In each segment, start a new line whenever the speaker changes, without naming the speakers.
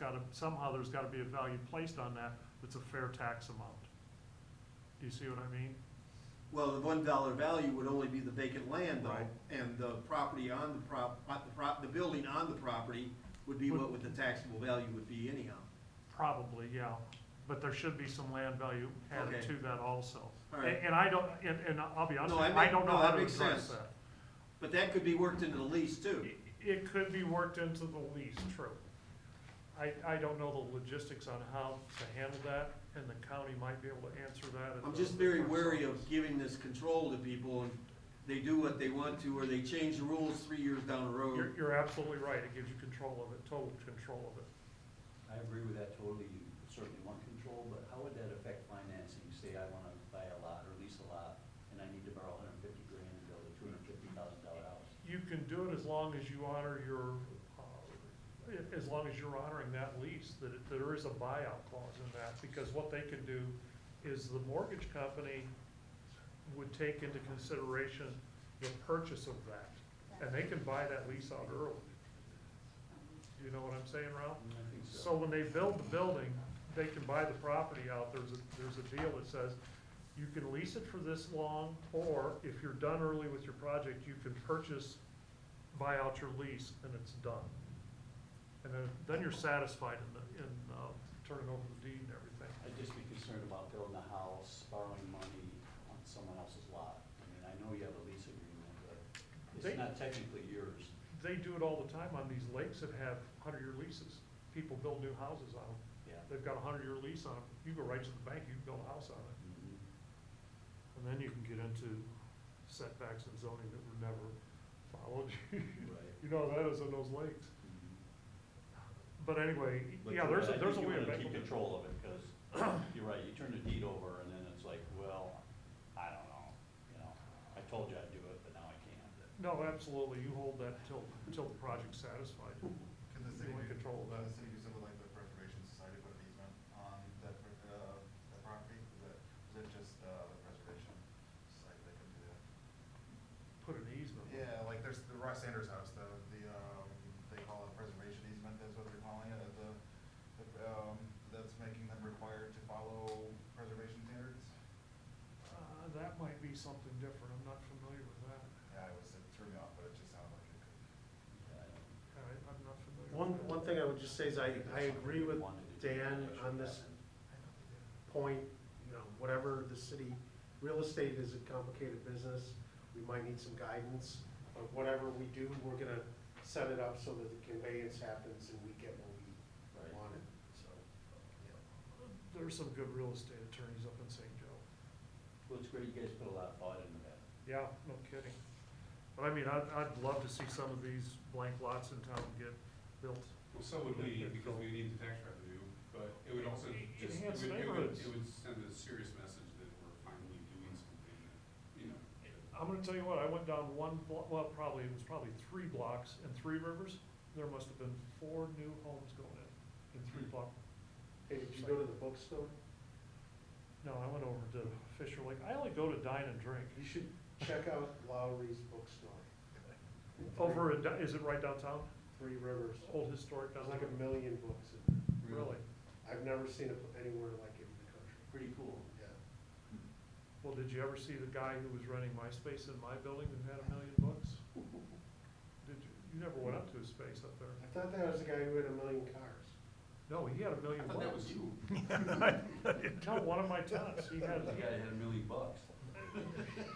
gotta, somehow there's gotta be a value placed on that that's a fair tax amount. Do you see what I mean?
Well, the one dollar value would only be the vacant land though,
Right.
and the property on the prop, uh, the prop, the building on the property would be what would the taxable value would be anyhow.
Probably, yeah, but there should be some land value added
Okay.
to that also.
All
And,
right.
and I don't, and, and I'll be honest,
No,
with you,
that
I
make-
don't know
no,
how
that
to
makes
address
sense.
that.
But that could be worked into the lease too.
It- It could be worked into the lease, true. I, I don't know the logistics on how to handle that, and the county might be able to answer that. at
I'm
the-
just very wary of giving this control to people and they do what they want to, or they change the rules three years down the road.
You're, you're absolutely right, it gives you control of it, total control of it.
I agree with that totally, you certainly want control, but how would that affect financing? Say I wanna buy a lot or lease a lot, and I need to borrow hundred and fifty grand and build a two hundred and fifty thousand dollar house.
You can do it as long as you honor your, uh, a- as long as you're honoring that lease, that it- there is a buyout clause in that. Because what they can do is the mortgage company would take into consideration the purchase of that. And they can buy that lease out early. You know what I'm saying, Ralph?
Mm, I think
Uh, So when they build the building, they can buy the property out, there's a, there's a deal that says, you can lease it for this long, or if you're done early with your project, you can purchase, buy out your lease, and it's done. And then, then you're satisfied in the, in, uh, turning over the deed and everything.
I'd just be concerned about building a house, borrowing money on someone else's lot. I mean, I know you have a lease agreement, but
They-
it's not technically yours.
They do it all the time on these lakes that have hundred-year leases, people build new houses on them,
Yeah.
they've got a hundred-year lease on them, you go right to the bank, you can build a house on it.
Mm-hmm.
And then you can get into setbacks and zoning that were never followed.
Right.
You know, how that is in those lakes.
Mhm.
But anyway,
But
yeah,
you're
there's a,
right, I
there's a
think
way to
You wanna
make
keep
it.
control of it, because you're right, you turn the deed over and then it's like, well, I don't know, you know, I told you I'd do it, but now I can't.
No, absolutely, you hold that till, till the project's satisfied.
Can the
You
uh, city,
want
do-
control of
can
that.
the city do something like the Preservation Society put an easement on that, pr- uh, that property? Is that, is that just, uh, the Preservation Society that can do that?
Put an easement.
Yeah, like there's the Ross Sanders house, the, the, um, they call it preservation easement, that's what they're calling it, the, the, um, that's making them required to follow preservation standards.
Uh, that might be something different, I'm not familiar with that.
Yeah, it was, it threw me off, but it just sounded like it could.
I, I'm not familiar.
One,
with that.
one thing I would just say is I, I agree with Dan on this point, you know, whatever the city, real estate is a complicated business. We might need some guidance, but whatever we do, we're gonna set it up so that the conveyance happens and we get what we
Right.
wanted, so.
There's some good real estate attorneys up in St. Joe.
Well, it's great, you guys put a lot of thought into that.
Yeah, no kidding. But I mean, I'd, I'd love to see some of these blank lots in town get built.
Well, so would we, because we need the tax revenue, but it would also just, it
Enhance
would, it would,
neighborhoods.
it would send a serious message that we're finally doing something that, you know.
I'm gonna tell you what, I went down one block, well, probably, it was probably three blocks in Three Rivers. There must have been four new homes going in, in three block.
Hey, did you go to the bookstore?
No, I went over to Fisher Lake. I only go to dine and drink.
You should check out Lowry's bookstore.
Over in, is it right downtown?
Three Rivers.
Old historic
There's
downtown?
like a million books in there.
Really?
I've never seen it anywhere like it in the country.
Pretty cool.
Yeah.
Well, did you ever see the guy who was running MySpace in my building who had a million books? Did you, you never went up to his space up there?
I thought that was the guy who had a million cars.
No, he had a million
I
books.
thought that was you.
No, one of my tenants, he
The
had,
guy had a million bucks.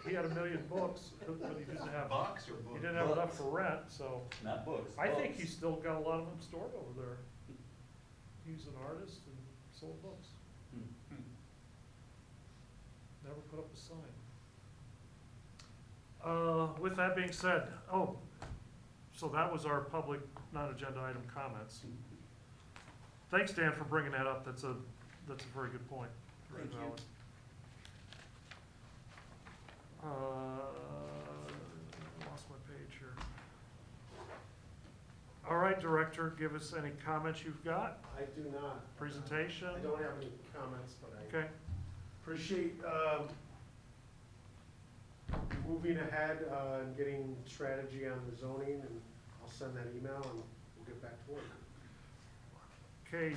he had a million books, but he didn't have.
Box or book?
He didn't have enough for rent, so
Not books,
I think
books.
he's still got a lot of them stored over there. He was an artist and sold books,
Hmm.
never put up a sign. Uh, with that being said, oh, so that was our public non-agenda item comments. Thanks, Dan, for bringing that up, that's a, that's a very good point. Very
Thank you.
valid. Uh, I lost my page here. All right, Director, give us any comments you've got,
I do not.
presentation?
I don't have any comments, but I
Okay,
appreciate, um, moving ahead, uh, and getting strategy on the zoning, and I'll send that email and we'll get back to work.
Okay,